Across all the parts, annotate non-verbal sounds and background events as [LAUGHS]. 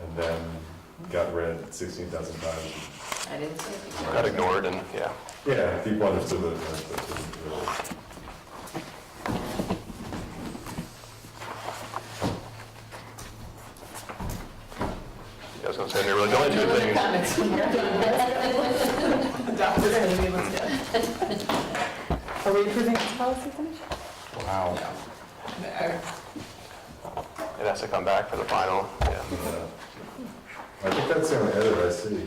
and then got read sixteen thousand times. I didn't say it. Got ignored and, yeah. Yeah, people understood the, understood the rule. Yeah, I was gonna say, they're really, the only two things, Comments from here. Adopted, I mean, let's go. Are we approving this policy finish? Wow. No. it has to come back for the final, yeah. Yeah. I think that's the only edit I see.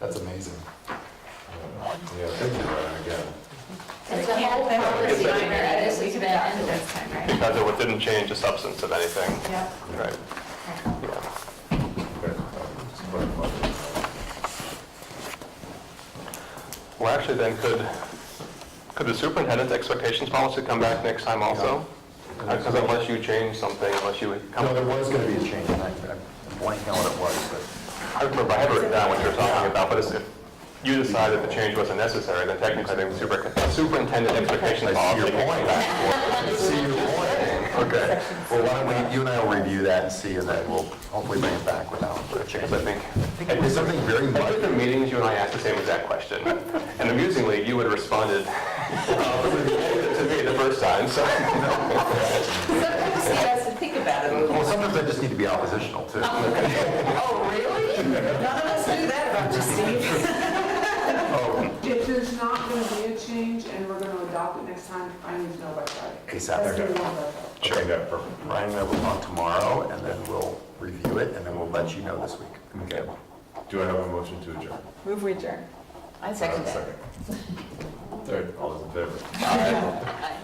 That's amazing. Yeah, thank you, Ryan, again. It's a whole policy minor, this We has can been adopt it ended. this time, right? Because it didn't change the substance of anything, Yep. right? Yeah. Okay, um, just put it on. Well, actually, then, could, could the superintendent's expectations policy come back next time also? Because unless you change something, unless you come, No, there was going to be a change, and I- I'm blanking on what it was, but I remember, I have written down what you were talking about, but it's- if you decide that the change wasn't necessary, then technically, I think the super- superintendent expectations I see policy your can come point. back. see your point. Okay, well, why don't we, you and I will review that and see, and then we'll hopefully bring it back without a change. Because I think, It was something very at much, different meetings, you and I asked the same exact question. And amusingly, you had responded [LAUGHS] to me the first time, so. Sometimes he has to think about it a little. well, sometimes I just need to be oppositional, too. Oh, really? None of us knew that about you, Steve. If there's not going to be a change and we're going to adopt it next time, I need to know by Friday. ASAP. That's the one that- Okay, yeah, perfect. Ryan and I will talk tomorrow, and then we'll review it, and then we'll let you know this week. Okay. Do I have a motion to adjourn? Move we adjourn. I second that. Second. Third, all those in favor? Aye.